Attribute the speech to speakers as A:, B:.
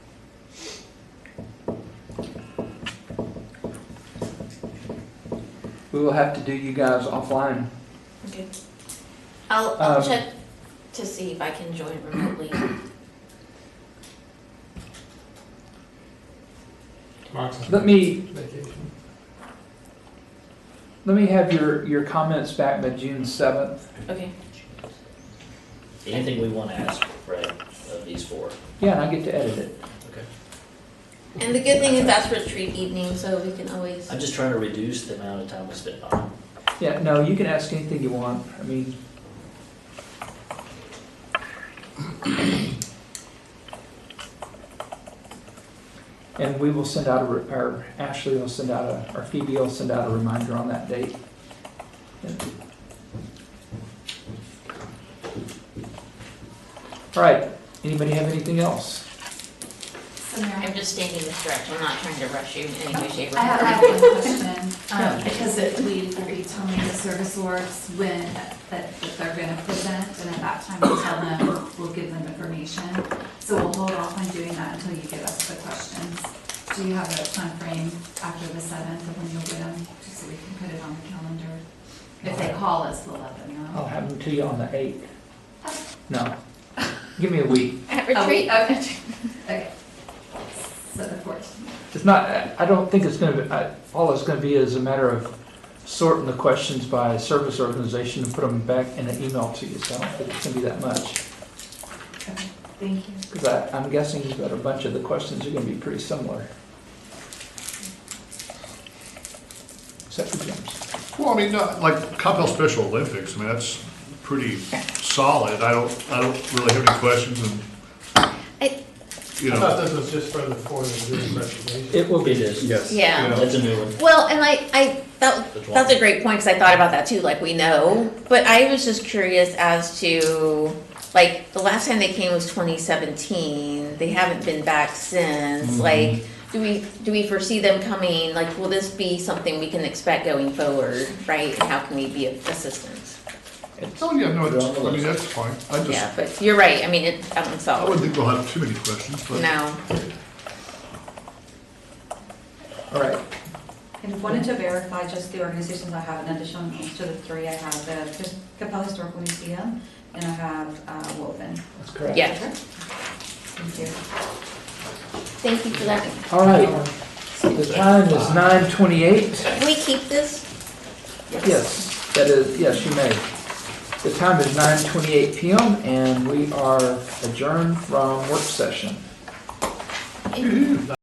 A: We will have to do you guys offline.
B: Okay. I'll, I'll
A: Um,
B: check to see if I can join remotely.
C: Mark's on
A: Let me,
C: vacation.
A: let me have your, your comments back by June seventh.
B: Okay,
D: Anything we want to ask, Fred, of these four?
A: Yeah, and I get to edit it.
B: and the good thing is that's retreat evening, so we can always,
D: I'm just trying to reduce the amount of time we spend on them.
A: Yeah, no, you can ask anything you want. I mean, and we will send out a, re- or Ashley will send out a, or Phoebe will send out a reminder on that date. And- All right, anybody have anything else?
B: I'm just standing this direct, I'm not trying to rush you in any way, shape, or
E: I have, I
B: form.
E: have one question,
A: Yeah.
E: um, because it, we, we tell me the service awards when, that, that they're gonna present, and at that time we tell them, we'll give them information. So we'll hold off on doing that until you give us the questions. Do you have a timeframe after the seventh of when you'll get them, just so we can put it on the calendar? If they call us, we'll let them know.
A: I'll have them to you on the eighth. No, give me a week.
B: At
E: Oh,
B: retreat,
E: Okay, okay. So the fourteenth,
A: It's not, I- I don't think it's gonna be, I- all it's gonna be is a matter of sorting the questions by service organization and put them back in an email to you, so I don't think it's gonna be that much.
E: okay, thank you.
A: Because I, I'm guessing that a bunch of the questions are gonna be pretty similar. Except for Jim's.
F: Well, I mean, not- like Coppell Special Olympics, I mean, that's pretty solid. I don't, I don't really have any questions and,
B: I-
F: you
C: I
F: know.
C: thought this was just for the four that did the presentation.
A: It will
D: It
A: be,
D: is.
G: Yes.
B: yeah.
D: That's a new one.
B: Well, and I, I, that,
D: That's
B: that's a
D: one.
B: great point, because I thought about that too, like, we know, but I was just curious as to, like, the last time they came was twenty seventeen, they haven't been back since,
F: Mm-hmm.
B: like, do we, do we foresee them coming, like, will this be something we can expect going forward, right, and how can we be of assistance?
F: Oh, yeah, no, it's- I mean, that's fine. I
B: Yeah,
F: just,
B: but you're right, I mean, it, I don't
F: I
B: solve
F: wouldn't
B: it,
F: think we'll have too many questions, but.
B: no,
A: all right.
H: And wanted to verify just the organizations I have in addition to the three, I have the just Capella Historical Museum, and I have uh, Woven.
A: That's correct.
B: Yeah.
H: Thank you.
B: thank you for that.
A: All right, the time is nine twenty-eight.
B: Can we keep this?
A: Yes, that is, yes, you may. The time is 9:28 PM and we are adjourned from work session.